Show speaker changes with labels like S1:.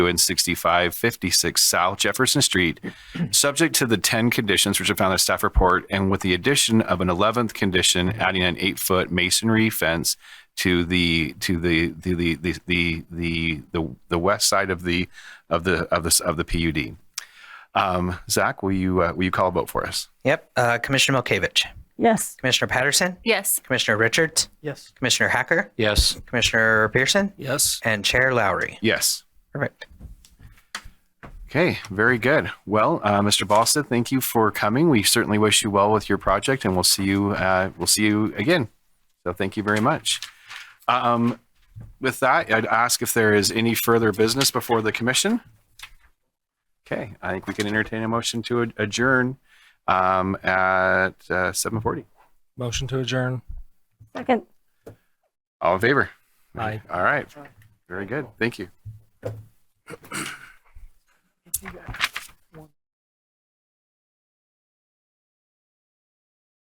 S1: and 6556 South Jefferson Street, subject to the 10 conditions which are found in the staff report and with the addition of an 11th condition, adding an eight-foot masonry fence to the, to the, the, the, the, the, the, the, the west side of the, of the, of the, of the PUD. Um, Zach, will you, uh, will you call a vote for us?
S2: Yep. Uh, Commissioner Milkovich,
S3: Yes.
S2: Commissioner Patterson,
S3: Yes.
S2: Commissioner Richards,
S4: Yes.
S2: Commissioner Hacker,
S5: Yes.
S2: Commissioner Pearson,
S4: Yes.
S2: and Chair Lowry.
S1: Yes.
S2: Perfect.
S1: Okay, very good. Well, uh, Mr. Ballstead, thank you for coming. We certainly wish you well with your project, and we'll see you. Uh, we'll see you again. So, thank you very much. Um, with that, I'd ask if there is any further business before the commission. Okay, I think we can entertain a motion to ad- adjourn um, at uh, seven forty.
S4: Motion to adjourn.
S3: Second.
S1: All in favor?
S4: Aye.
S1: All right. Very good. Thank you.